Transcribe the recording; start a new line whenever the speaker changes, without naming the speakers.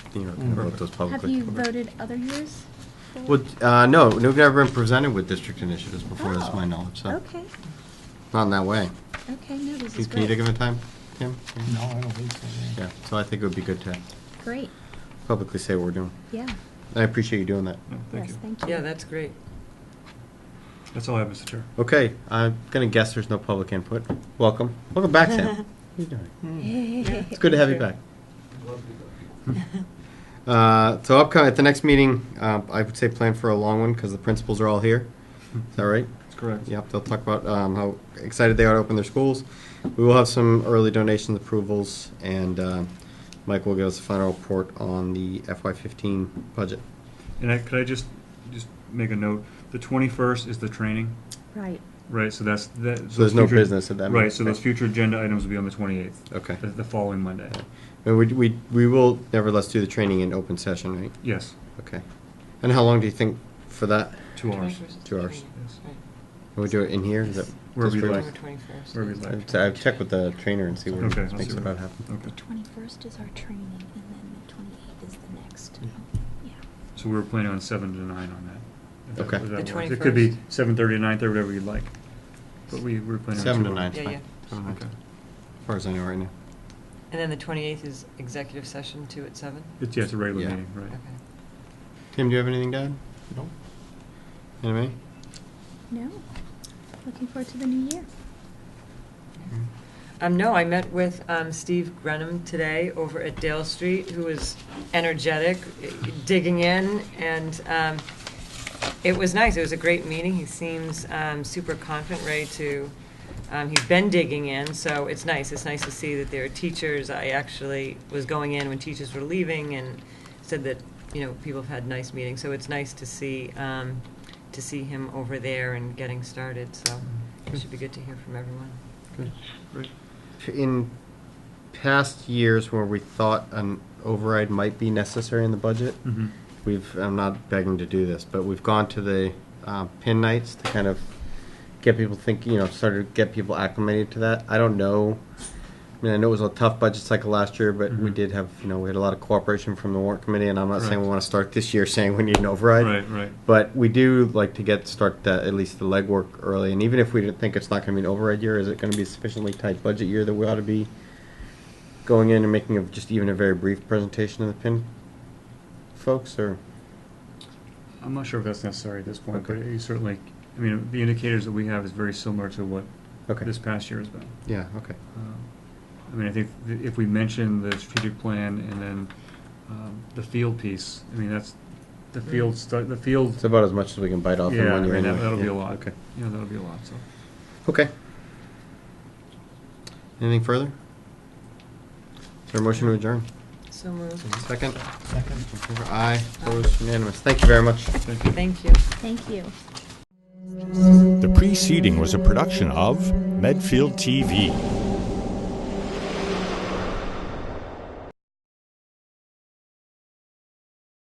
you know, kind of about those
Have
publicly.
you voted other years? for-
Mm. Well, uh, no, we've never been presented with district initiatives before, that's my
Oh,
knowledge, so,
Okay,
not in that way.
okay, no, this
Can
is
can you
great.
think of a time, Kim?
No, I don't think so.
Yeah, so I think it would be good to
Great,
publicly say what we're doing.
yeah,
I appreciate you doing that.
No, Thank
yes,
you.
thank you.
Yeah, that's great.
That's all I have, Mr. Chair.
Okay, I'm gonna guess there's no public input. Welcome, welcome back, Sam. How you doing? It's good to have you back. Uh, So upcoming, at the next meeting, uh, I would say plan for a long one, because the principals are all here. Is that right?
That's correct.
Yep, they'll talk about um, how excited they are to open their schools. We will have some early donation approvals, and um, Mike will give us a final report on the FY15 budget.
And I, could I just, just make a note? The twenty-first is the training,
Right,
right? So that's, that. those
there's no
future-
business at that meeting,
Right, so those
right?
future agenda items will be on the twenty-eighth.
Okay.
The, the following Monday.
And we, we we will nevertheless do the training in open session, right?
Yes,
Okay. And how long do you think for that?
two hours.
21st is
Two hours.
training,
Yes.
right.
Can we do it in here? Is that-
Wherever
just for-
you'd like.
October 21st.
Wherever you'd
I've
like.
I've checked with the trainer and see where
Okay,
it
I'll
makes
see
it
what-
about happen.
Okay.
twenty-first is our training, and then the twenty-eighth is the next,
Yeah.
yeah.
So we were planning on seven to nine on that. If that-
Okay.
if that
The
works. It could be
21st?
seven thirty to nine thirty, whatever you'd like. But we were planning on.
Seven
two
to nine, Oh, it's
hours.
Yeah,
fine.
yeah.
Seven to nine.
Okay.
As far as I know right now.
And then the 28th is executive session, two at seven?
It's, yeah, it's a regular
Yeah.
meeting, right?
Okay.
Tim, do you have anything to add?
Nope.
Anybody?
No, looking forward to the new year.
Um, no, I met with, um, Steve Grenham today over at Dale Street, who is energetic, digging in, and, um, it was nice. It was a great meeting. He seems, um, super confident, ready to, um, he's been digging in, so it's nice. It's nice to see that there are teachers. I actually was going in when teachers were leaving and said that, you know, people have had nice meetings, so it's nice to see, um, to see him over there and getting started, so it should be good to hear from everyone.
Good, great.
In past years where we thought an override might be necessary in the budget,
Mhm.
we've, I'm not begging to do this, but we've gone to the uh, pin nights to kind of get people thinking, you know, sort of get people acclimated to that. I don't know. I mean, I know it was a tough budget cycle last year, but we
Mhm.
did have, you know, we had a lot of cooperation from the warrant committee, and I'm not saying we
Correct.
want to start this year saying we need an override.
Right, right.
But we do like to get start the, at least the legwork early, and even if we didn't think it's not going to be an override year, is it going to be a sufficiently tight budget year that we ought to be going in and making a, just even a very brief presentation of the pin folks, or
I'm not sure if that's necessary at this point, but
Okay.
you certainly, I mean, the indicators that we have is very similar to what
okay,
this past year has been.
yeah, okay,
Um, I mean, I think th- if we mention the strategic plan and then um, the field piece, I mean, that's, the field, stu- the field,
Mm. it's about as much as we can bite off in
yeah, I
one year.
mean, that-
anyway.
that'll be
Yeah,
a lot.
Okay,
You know, that'll be a lot, so.
okay. Anything further? Is there a motion to adjourn?
So moved.
Second,
Second.
All in favor? aye, opposed, unanimous. Thank you very much.
Thank you.
Thank you.
Thank you.
The preceding was a production of Medfield TV.